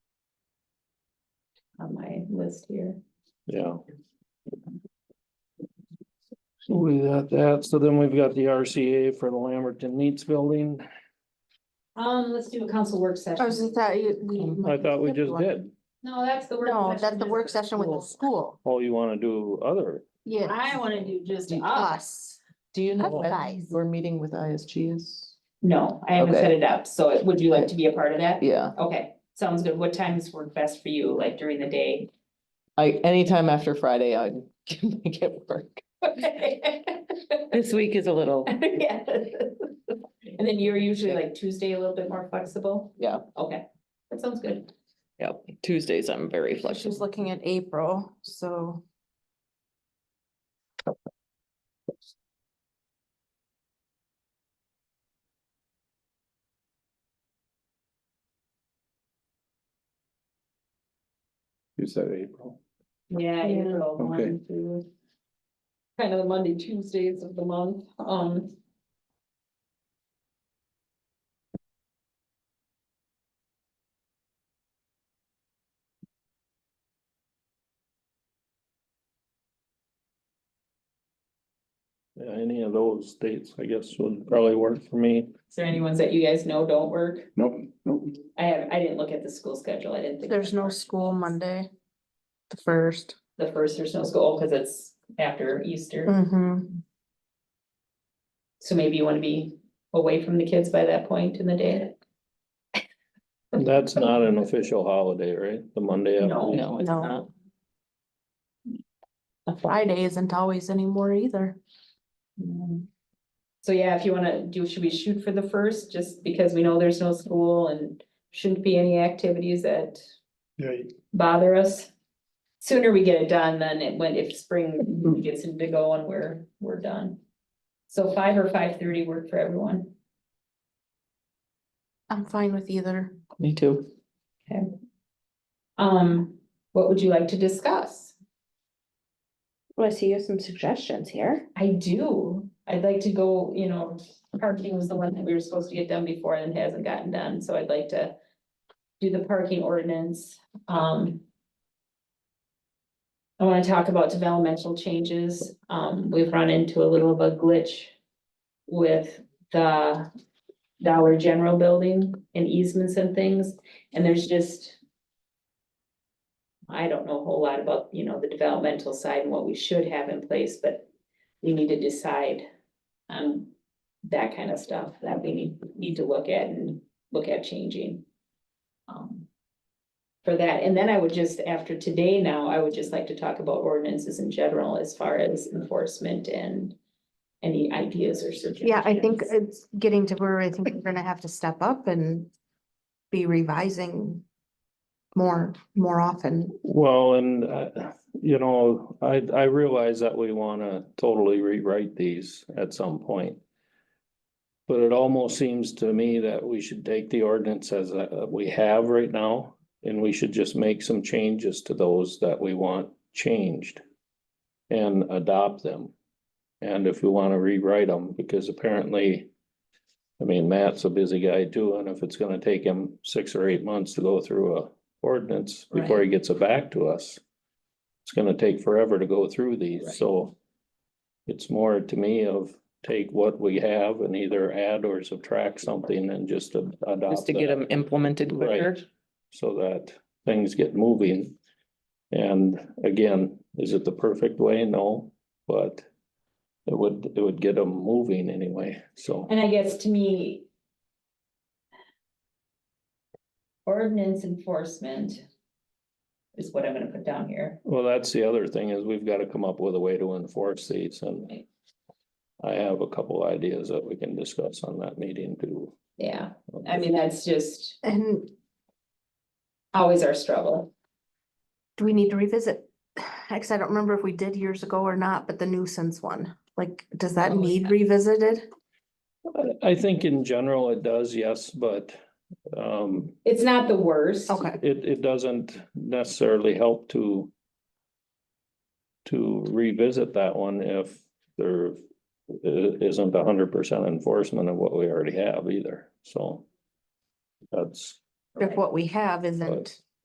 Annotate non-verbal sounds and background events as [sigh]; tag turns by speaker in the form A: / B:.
A: on my list here.
B: Yeah. So we got that, so then we've got the RCA for the Lamberton Neats Building,
A: Um, let's do a council work
C: I was
A: session.
C: just thought you- we.
B: Um, I thought we just did,
A: No, that's the work.
C: No,
A: session
C: that's the
A: is-
C: work session with the
D: Cool.
C: school,
B: oh, you wanna do other,
C: yeah,
A: I wanna do just us.
C: us.
D: Do you know when
C: Advice.
D: your meeting with ISG is?
A: No, I haven't
D: Okay.
A: set it up, so would you like to be a part of that?
D: Yeah,
A: Okay, sounds good. What times work best for you, like during the day? [laughs]
D: I, anytime after Friday, I [laughs] can make it work. This week is a little.
A: Yeah. And then you're usually like Tuesday a little bit more flexible?
D: Yeah.
A: Okay, that sounds good.
D: Yeah, Tuesdays I'm very
C: She was looking at April, so.
B: you said April.
A: Yeah,
C: Yeah.
A: April
B: Okay.
A: one through. Kind of the Monday, Tuesdays of the month, um.
B: Yeah, any of those dates, I guess, would probably work for me.
A: Is there any ones that you guys know don't work?
B: Nope, nope.
A: I have, I didn't look at the school schedule. I didn't think.
C: There's no school Monday, the first.
A: The first, there's no school, because it's after Easter,
C: Mm-hmm.
A: so maybe you wanna be away from the kids by that point in the day.
B: That's not an official holiday, right, the Monday? after-
A: No.
D: No, it's
C: No.
D: not.
C: A Friday isn't always anymore either. Mm.
A: So yeah, if you wanna do, should we shoot for the first, just because we know there's no school and shouldn't be any activities that bother us? Sooner we get it done than it when if
C: Mm.
A: spring gets into go and we're, we're done. So five or five thirty work for everyone.
C: I'm fine with either.
D: Me too.
A: Um, what would you like to discuss?
E: Well, I see you have some suggestions here.
A: I do. I'd like to go, you know, parking was the one that we were supposed to get done before and hasn't gotten done, so I'd like to. Do the parking ordinance, um. I wanna talk about developmental changes. Um, we've run into a little of a glitch. With the Dollar General building and easements and things, and there's just. I don't know a whole lot about, you know, the developmental side and what we should have in place, but we need to decide on that kind of stuff that we need, need to look at and look at changing. um, For that, and then I would just, after today now, I would just like to talk about ordinances in general as far as enforcement and any ideas or suggestions.
C: Yeah, I think it's getting to where I think we're gonna have to step up and be revising more, more often.
B: Well, and, uh, you know, I, I realize that we wanna totally rewrite these at some point. But it almost seems to me that we should take the ordinance as uh, we have right now, and we should just make some changes to those that we want changed. And adopt them. And if we wanna rewrite them, because apparently. I mean, Matt's a busy guy too, and if it's gonna take him six or eight months to go through a ordinance before he gets it back to us. It's gonna take forever to go through these, so. It's more to me of take what we have and either add or subtract something and just a- adopt.
D: Just to get
B: that
D: them implemented
B: Right.
D: quicker.
B: so that things get moving. And again, is it the perfect way? No, but it would, it would get them moving anyway, so.
A: And I guess to me. Ordinance enforcement. Is what I'm gonna put down here.
B: Well, that's the other thing is we've got to come up with a way to enforce these and
A: Right.
B: I have a couple ideas that we can discuss on that meeting too.
A: Yeah, I mean, that's just
C: And
A: always our struggle.
C: do we need to revisit? [sighs] Actually, I don't remember if we did years ago or not, but the nuisance one, like, does that
A: Oh,
C: need revisited?
B: I, I think in general it does, yes, but um,
A: It's not the worst.
C: Okay,
B: it, it doesn't necessarily help to to revisit that one if there i- isn't a hundred percent enforcement of what we already have either, so that's,
C: if what we have isn't